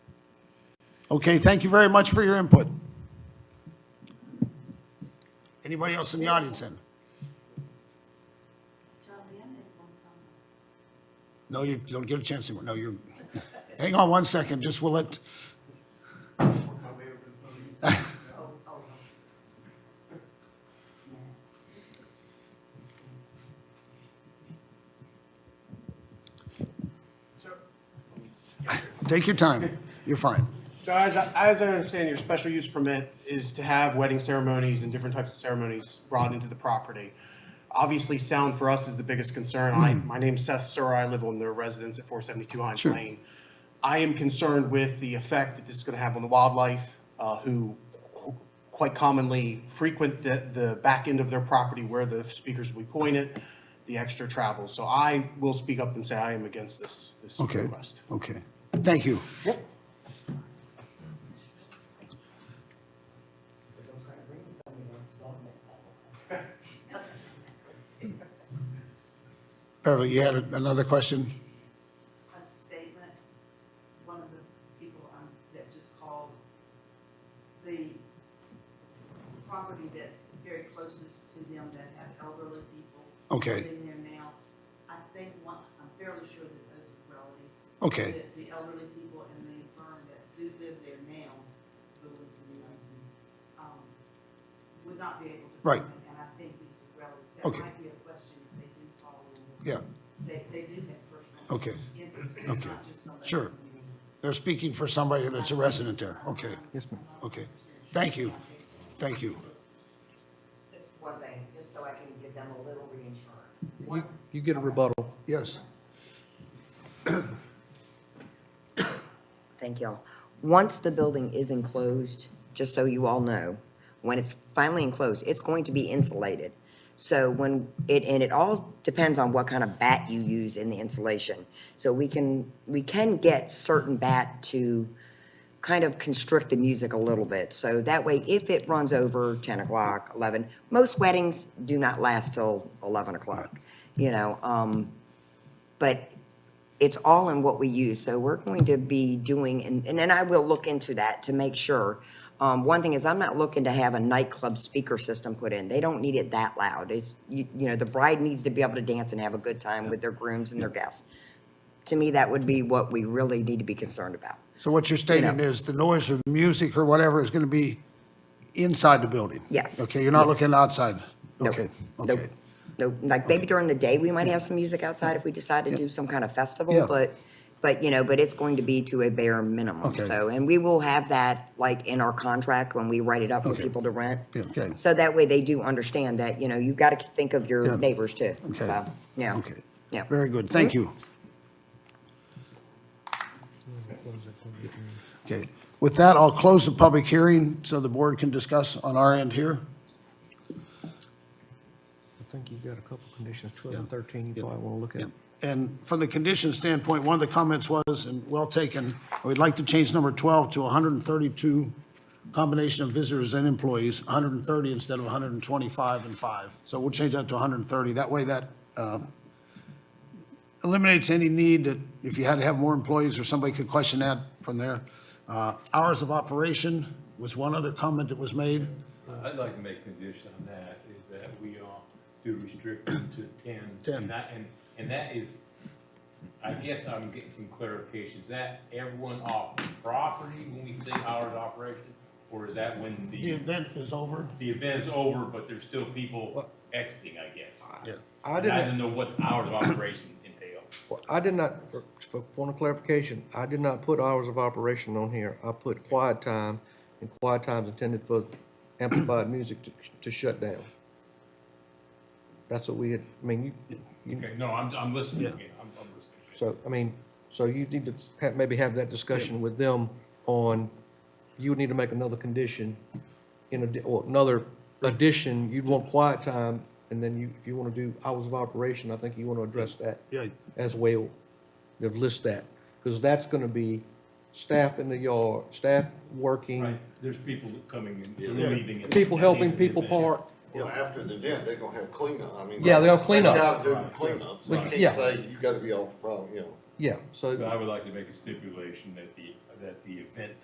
Okay, thank you very much for your input. Anybody else in the audience then? No, you don't get a chance anymore. No, you're, hang on one second, just we'll let, take your time. You're fine. So as, as I understand, your special use permit is to have wedding ceremonies and different types of ceremonies brought into the property. Obviously, sound for us is the biggest concern. I, my name's Seth Sura, I live on the residence at four seventy-two Hines Hmm. Sure. Lane. I am concerned with the effect that this is gonna have on the wildlife, uh, who qu- quite commonly frequent the, the back end of their property where the speakers will be pointed, the extra travel. So I will speak up and say I am against this, this Okay, request. okay. Thank you. Beverly, you had another question? a statement, one of the people um, that just called, the property that's very closest to them that have elderly people Okay. living there now, I think one, I'm fairly sure that those are relatives. Okay. That The elderly people and the firm that do live there now, Lewis and Johnson, um, would not be able to. Right. comment, And I think these are relatives. Okay. That might be a question if they do call in. Yeah. They, they do have personal. Okay. interest. It's Okay. not just somebody Sure. coming in. They're speaking for somebody that's a resident there. Okay. Yes, ma'am. Okay. Thank you. Thank you. Just one thing, just so I can give them a little reinsurance. You, Once, you get a rebuttal. Yes. thank y'all. Once the building is enclosed, just so you all know, when it's finally enclosed, it's going to be insulated. So when it, and it all depends on what kind of bat you use in the insulation. So we can, we can get certain bat to kind of constrict the music a little bit. So that way, if it runs over ten o'clock, eleven, most weddings do not last till eleven o'clock, you know, um, but it's all in what we use, so we're going to be doing, and, and then I will look into that to make sure. Um, one thing is, I'm not looking to have a nightclub speaker system put in, they don't need it that loud, it's, you, you know, the bride needs to be able to dance and have a good time with their grooms and their guests. To me, that would be what we really need to be concerned about. So what you're stating know. is the noise or the music or whatever is going to be inside the building? Yes. Okay, you're not looking outside? Nope. Okay, Nope. okay. Nope. like maybe during the day, we might have some music outside if we decide to do some kind of Yeah. festival, but, but, you know, but it's going to be to a bare minimum, Okay. so. And we will have that, like, in our contract when we write it up for Okay. people to rent. Yeah, okay. So that way they do understand that, you know, you gotta think of Yeah. your neighbors too, Okay. so, yeah. Okay. Yeah. Mm-hmm. Very good, thank you. Okay, with that, I'll close the public hearing so the board can discuss on our end here. I think you've got a couple conditions, 12 and Yeah. 13, Yeah. you probably want to look Yeah. at. And from the condition standpoint, one of the comments was, and well taken, we'd like to change number 12 to 132, combination of visitors and employees, 130 instead of 125 and 5. So we'll change that to 130. That way that uh, eliminates any need that if you had to have more employees or somebody could question that from there. Uh, Hours of operation was one other comment that was made. I'd like to make condition on that, is that we all do restrict them to ten. 10. And that, and, and that is, I guess I'm getting some clarification, is that everyone off property when we say hours of operation? Or is that when The the, event is over. the event's over, but there's still people exiting, I guess? Yeah. I And I did don't know what hours of operation entail. not, I did not, for- for point of clarification, I did not put hours of operation on here. I put quiet time, and quiet time's intended for amplified music to, to shut down. That's what we had, I mean, you, you, Okay, no, I'm, I'm listening, Yeah. again. I'm, I'm listening. so, I mean, so you need to ha- maybe have that discussion with them on, you would need to make another condition in, addi- or another addition, you'd want quiet time, and then you, if you want to do hours of operation, I think you want to address that Yeah. as well, you list that, because that's going to be staff in the yard, staff working, Right, there's people coming and leaving. and- people helping and leaving people the event. park, Well, after the event, they're gonna have cleanup, I mean. Yeah, like, they'll clean up. They gotta do the cleanup, so Like, I yeah. can't say you gotta be off, the problem, you know. yeah, so. But I would like to make a stipulation that the, that the event